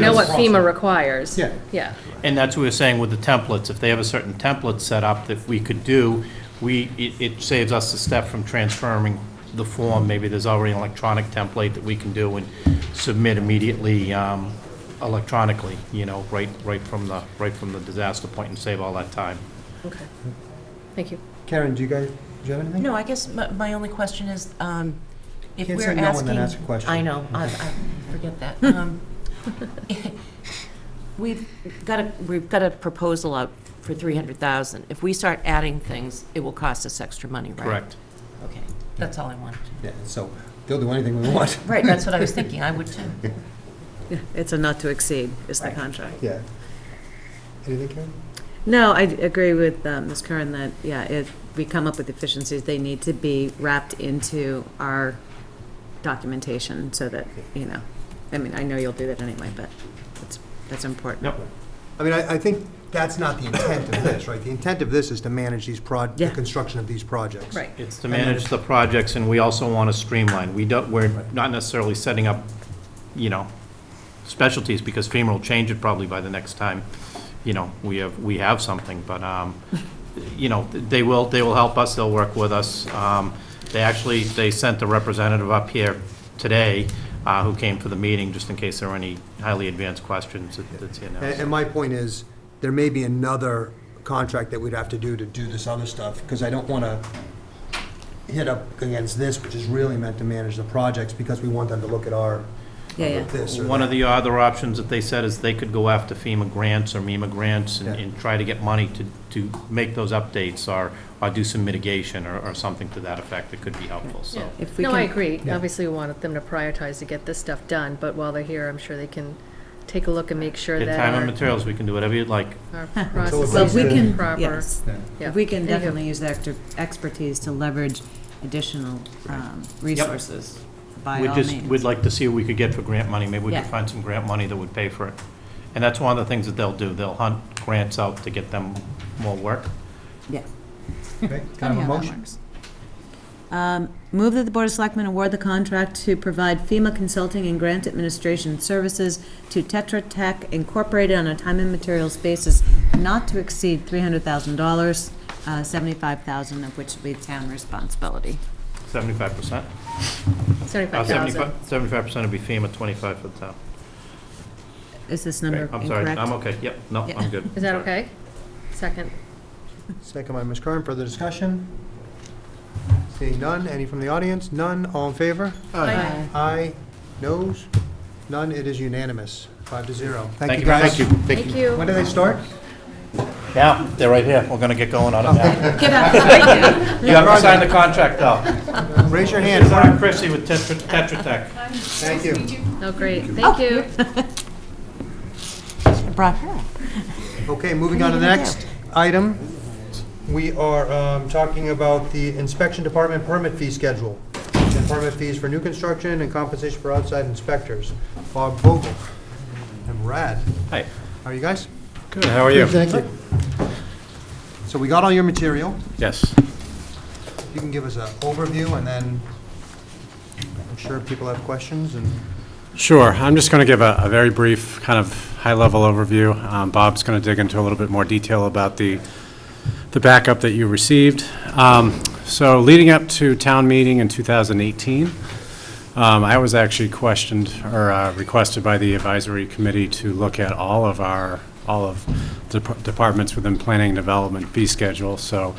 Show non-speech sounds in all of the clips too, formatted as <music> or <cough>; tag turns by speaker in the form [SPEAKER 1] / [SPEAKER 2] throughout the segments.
[SPEAKER 1] know what FEMA requires.
[SPEAKER 2] Yeah.
[SPEAKER 1] Yeah.
[SPEAKER 3] And that's what we were saying with the templates, if they have a certain template set up that we could do, we, it, it saves us a step from transferring the form, maybe there's already an electronic template that we can do and submit immediately, um, electronically, you know, right, right from the, right from the disaster point and save all that time.
[SPEAKER 1] Okay. Thank you.
[SPEAKER 2] Karen, do you guys, do you have anything?
[SPEAKER 4] No, I guess my, my only question is, um, if
[SPEAKER 2] Can't
[SPEAKER 4] we're
[SPEAKER 2] say
[SPEAKER 4] asking.
[SPEAKER 2] no and then ask a question.
[SPEAKER 4] I know, I, I forget
[SPEAKER 2] <laughs>
[SPEAKER 4] that. Um, <laughs> We've got a, we've got a proposal out for three hundred thousand. If we start adding things, it will cost us extra money, right?
[SPEAKER 3] Correct.
[SPEAKER 4] Okay, that's all I wanted. to-
[SPEAKER 2] Yeah, so they'll do anything we want. <laughs>
[SPEAKER 4] Right, that's what I was thinking, I would too.
[SPEAKER 5] Yeah, It's a not to exceed is the
[SPEAKER 4] Right.
[SPEAKER 5] contract.
[SPEAKER 2] Yeah. Anything, Karen?
[SPEAKER 5] No, I d- agree with um, Ms. Curran that, yeah, if we come up with efficiencies, they need to be wrapped into our documentation so that, you know, I mean, I know you'll do that anyway, but that's, that's important.
[SPEAKER 3] Yep.
[SPEAKER 2] I mean, I, I think that's not the intent of this, right? The intent of this is to manage these proj, the
[SPEAKER 5] Yeah.
[SPEAKER 2] construction of these projects.
[SPEAKER 1] Right.
[SPEAKER 3] It's to manage the projects, and we also want to streamline. We don't, we're not necessarily setting up, you know, specialties, because FEMA will change it probably by the next time, you know, we have, we have something, but, um, you know, they will, they will help us, they'll work with us. Um, They actually, they sent a representative up here today, uh, who came for the meeting, just in case there were any highly advanced questions that- that's here now.
[SPEAKER 2] And, and my point is, there may be another contract that we'd have to do to do this other stuff, because I don't want to hit up against this, which is really meant to manage the projects, because we want them to look at our,
[SPEAKER 5] Yeah, yeah.
[SPEAKER 2] this or
[SPEAKER 3] One of
[SPEAKER 2] that.
[SPEAKER 3] the other options that they said is they could go after FEMA grants or MEMA grants and-
[SPEAKER 2] Yeah.
[SPEAKER 3] and try to get money to, to make those updates or, or do some mitigation or, or something to that effect that could be helpful, so.
[SPEAKER 5] If we
[SPEAKER 1] No, I
[SPEAKER 5] can-
[SPEAKER 1] agree.
[SPEAKER 2] Yeah.
[SPEAKER 1] Obviously, we want them to prioritize to get this stuff done, but while they're here, I'm sure they can take a look and make sure
[SPEAKER 3] At
[SPEAKER 1] that
[SPEAKER 3] time and
[SPEAKER 1] our-
[SPEAKER 3] materials, we can do whatever you'd like.
[SPEAKER 1] our <laughs>
[SPEAKER 2] So
[SPEAKER 1] process
[SPEAKER 2] if we
[SPEAKER 1] is
[SPEAKER 2] can-
[SPEAKER 1] proper.
[SPEAKER 5] Yes.
[SPEAKER 2] Yeah.
[SPEAKER 1] Yeah.
[SPEAKER 5] We can
[SPEAKER 1] There you go.
[SPEAKER 5] definitely use their extra- expertise to leverage additional um, resources by
[SPEAKER 3] We'd
[SPEAKER 5] all
[SPEAKER 3] just-
[SPEAKER 5] means.
[SPEAKER 3] We'd like to see what we could get for grant money, maybe we could
[SPEAKER 5] Yeah.
[SPEAKER 3] find some grant money that would pay for it. And that's one of the things that they'll do, they'll hunt grants out to get them more work.
[SPEAKER 5] Yeah.
[SPEAKER 2] Okay, Can I have a motion?
[SPEAKER 5] Um, Move that the Board of Selectmen award the contract to provide FEMA consulting and grant administration services to Tetra Tech Incorporated on a time and materials basis not to exceed $300,000, uh, 75000 of which will be town responsibility.
[SPEAKER 3] Seventy-five percent? Uh,
[SPEAKER 1] Seventy-five thousand.
[SPEAKER 3] Seventy-five percent would be FEMA, twenty-five for the town.
[SPEAKER 5] Is this
[SPEAKER 3] Okay,
[SPEAKER 5] number
[SPEAKER 3] I'm sorry,
[SPEAKER 5] incorrect?
[SPEAKER 3] I'm okay, yep, no,
[SPEAKER 5] Yeah.
[SPEAKER 3] I'm good.
[SPEAKER 1] Is that
[SPEAKER 3] Sorry.
[SPEAKER 1] okay? Second.
[SPEAKER 2] Second by Ms. Curran, further discussion? Seeing none, any from the audience? None, all in favor?
[SPEAKER 1] Aye.
[SPEAKER 2] Aye, noes, none, it is unanimous, five to zero.
[SPEAKER 3] Thank you, thank you.
[SPEAKER 1] Thank you.
[SPEAKER 2] When do they start?
[SPEAKER 3] Yeah, they're right here. We're gonna get going on it now.
[SPEAKER 5] Get up, thank you.
[SPEAKER 3] You have to sign the contract, though.
[SPEAKER 2] Raise your
[SPEAKER 3] It's
[SPEAKER 2] hand.
[SPEAKER 3] Ron Chrissy with Tetra Tetra Tech.
[SPEAKER 2] Thank you.
[SPEAKER 1] Oh, great. Thank you.
[SPEAKER 5] Brought her up.
[SPEAKER 2] Okay, moving on to the next item. We are um, talking about the inspection department permit fee schedule. And permit fees for new construction and compensation for outside inspectors. Bob Vogel and Brad,
[SPEAKER 3] Hi.
[SPEAKER 2] how are you guys?
[SPEAKER 3] Good, how are you?
[SPEAKER 2] Thank you. So we got all your material.
[SPEAKER 3] Yes.
[SPEAKER 2] If You can give us an overview and then I'm sure people have questions and
[SPEAKER 6] Sure. I'm just going to give a a very brief, kind of high-level overview. Um, Bob's going to dig into a little bit more detail about the the backup that you received. Um, So leading up to town meeting in 2018, um, I was actually questioned or uh, requested by the advisory committee to look at all of our, all of the dep- departments within planning and development fee schedule. So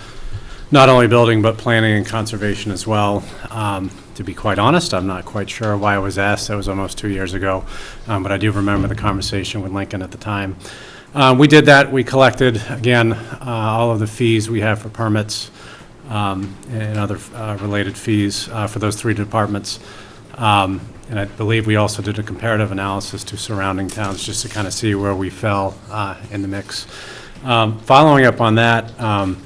[SPEAKER 6] not only building, but planning and conservation as well. Um, To be quite honest, I'm not quite sure why I was asked. That was almost two years ago. Um, But I do remember the conversation with Lincoln at the time. Uh, We did that. We collected, again, uh, all of the fees we have for permits um, and other uh, related fees uh, for those three departments. Um, And I believe we also did a comparative analysis to surrounding towns, just to kind of see where we fell uh, in the mix. Um, Following up on that, um,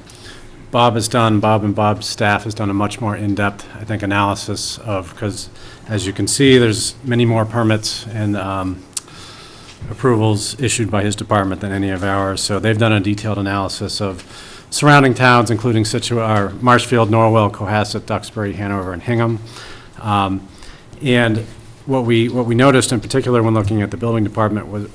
[SPEAKER 6] Bob has done, Bob and Bob's staff has done a much more in-depth, I think, analysis of, because as you can see, there's many more permits and um, approvals issued by his department than any of ours. So they've done a detailed analysis of surrounding towns, including Situ, or Marshfield, Norwell, Cohasset, Duxbury, Hanover, and Hingham. Um, And what we, what we noticed in particular when looking at the building department was,